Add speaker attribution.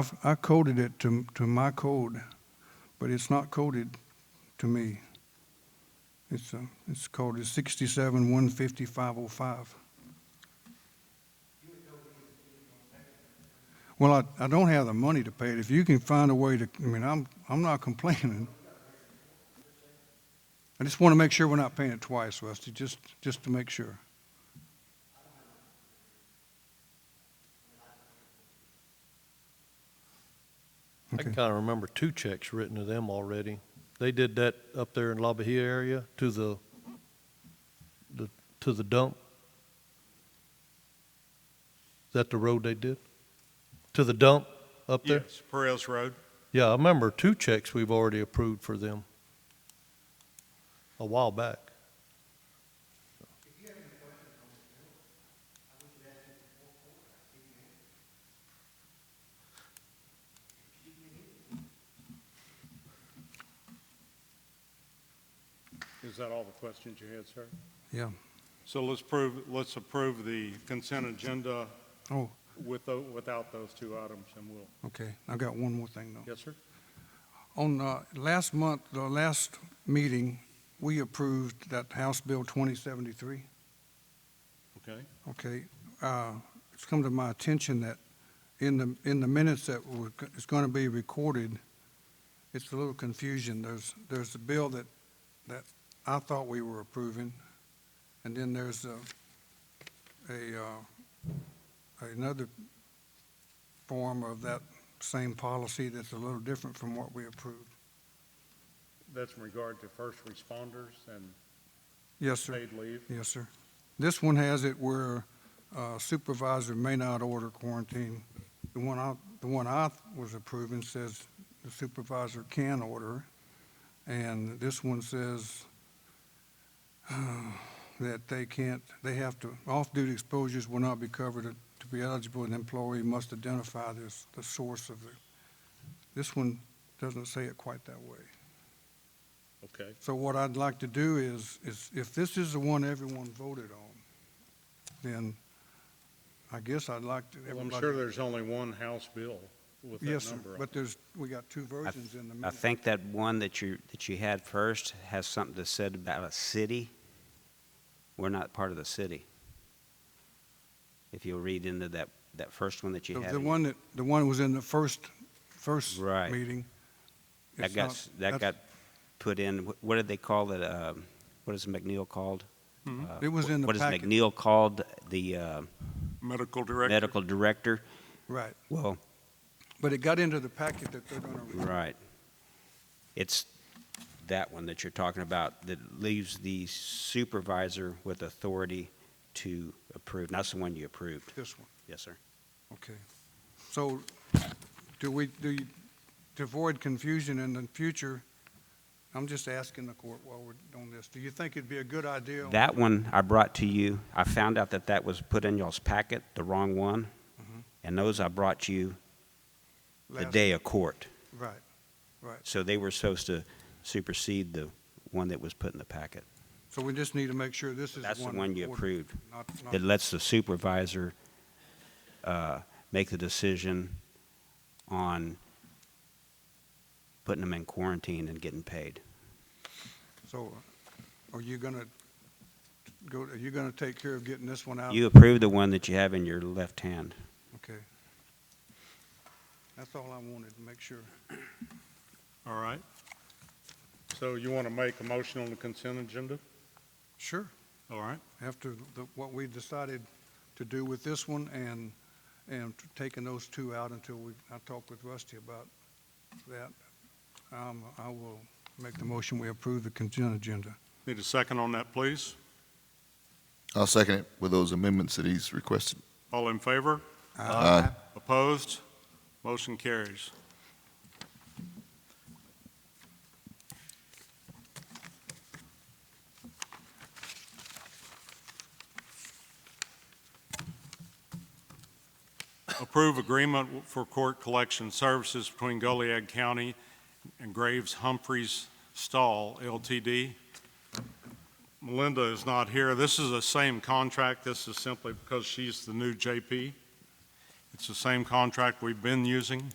Speaker 1: I've- I coded it to, to my code, but it's not coded to me. It's, uh, it's coded sixty-seven one fifty five oh five. Well, I, I don't have the money to pay it. If you can find a way to, I mean, I'm, I'm not complaining. I just want to make sure we're not paying it twice, Rusty, just, just to make sure.
Speaker 2: I
Speaker 1: Okay.
Speaker 2: kind of remember two checks written to them already. They did that up there in La Bahia area to the, the, to the dump. Is that the road they did? To the dump up there?
Speaker 3: Yes, Perez Road.
Speaker 2: Yeah, I remember two checks we've already approved for them a while back.
Speaker 3: Is that all the questions you had, sir?
Speaker 1: Yeah.
Speaker 3: So let's prove, let's approve the consent agenda
Speaker 1: Oh,
Speaker 3: with, tho- without those two items, and we'll,
Speaker 1: okay. I've got one more thing, though.
Speaker 3: yes, sir?
Speaker 1: On uh, last month, the last meeting, we approved that House Bill 2073,
Speaker 3: Okay.
Speaker 1: okay? Uh, It's come to my attention that in the, in the minutes that were- it's going to be recorded, it's a little confusion. There's, there's a bill that, that I thought we were approving, and then there's a, a, uh, another form of that same policy that's a little different from what we approved.
Speaker 3: That's in regard to first responders and
Speaker 1: Yes, sir.
Speaker 3: paid leave.
Speaker 1: Yes, sir. This one has it where uh, supervisor may not order quarantine. The one I, the one I was approving says the supervisor can order. And this one says uh, that they can't, they have to, off-duty exposures will not be covered. uh, To be eligible, an employee must identify this, the source of the, this one doesn't say it quite that way.
Speaker 3: Okay.
Speaker 1: So what I'd like to do is, is if this is the one everyone voted on, then I guess I'd like to.
Speaker 3: Well, I'm
Speaker 1: everybody-
Speaker 3: sure there's only one House bill with
Speaker 1: Yes,
Speaker 3: that
Speaker 1: sir,
Speaker 3: number. on
Speaker 1: but there's, we got two
Speaker 4: I-
Speaker 1: versions in the
Speaker 4: I
Speaker 1: minute.
Speaker 4: think that one that you, that you had first has something to said about a city. We're not part of the city. If you'll read into that, that first one that
Speaker 1: The
Speaker 4: you had.
Speaker 1: the
Speaker 4: in-
Speaker 1: one that, the one was in the first, first
Speaker 4: Right.
Speaker 1: meeting.
Speaker 4: That
Speaker 1: It's
Speaker 4: got,
Speaker 1: not-
Speaker 4: s- that
Speaker 1: that's-
Speaker 4: got put in, wh- what did they call it, um, what is McNeil called? Uh,
Speaker 1: Mm-hmm. It was
Speaker 4: wh-
Speaker 1: in the
Speaker 4: What
Speaker 1: packet.
Speaker 4: is McNeil called, the uh,
Speaker 3: Medical director.
Speaker 4: medical director?
Speaker 1: Right,
Speaker 4: Well,
Speaker 1: but it got into the packet that they're gonna.
Speaker 4: Right. It's that one that you're talking about that leaves the supervisor with authority to approve. That's the one you approved.
Speaker 1: This one,
Speaker 4: Yes, sir.
Speaker 1: okay. So do we, do you, to avoid confusion in the future, I'm just asking the court while we're on this, do you think it'd be a good idea? on-
Speaker 4: That one I brought to you. I found out that that was put in y'all's packet, the wrong one.
Speaker 1: Mhm.
Speaker 4: And those I brought you the
Speaker 1: last-
Speaker 4: day of court.
Speaker 1: Right.
Speaker 4: So they were supposed to supersede the one that was put in the packet.
Speaker 1: So we just need to make sure this is.
Speaker 4: That's the one you
Speaker 1: order,
Speaker 4: approved.
Speaker 1: not- not-
Speaker 4: It lets the supervisor uh, make the decision on putting them in quarantine and getting paid.
Speaker 1: So are you going to go, are you going to take care of getting this one out?
Speaker 4: You approve the one that you have in your left hand.
Speaker 1: Okay. That's all I wanted, to make sure.
Speaker 3: All right. So you want to make a motion on the consent agenda?
Speaker 1: Sure.
Speaker 3: All right.
Speaker 1: After the- what we decided to do with this one and, and taking those two out until we, I talk with Rusty about that, um, I will make the motion, we approve the consent agenda.
Speaker 3: Need a second on that, please?
Speaker 5: I'll second it with those amendments that he's requested.
Speaker 3: All in favor?
Speaker 5: Aye.
Speaker 3: Opposed? Motion carries. Approve agreement for court collection services between Goliad County and Graves Humphreys Stall LTD. Melinda is not here. This is the same contract. This is simply because she's the new JP. It's the same contract we've been using.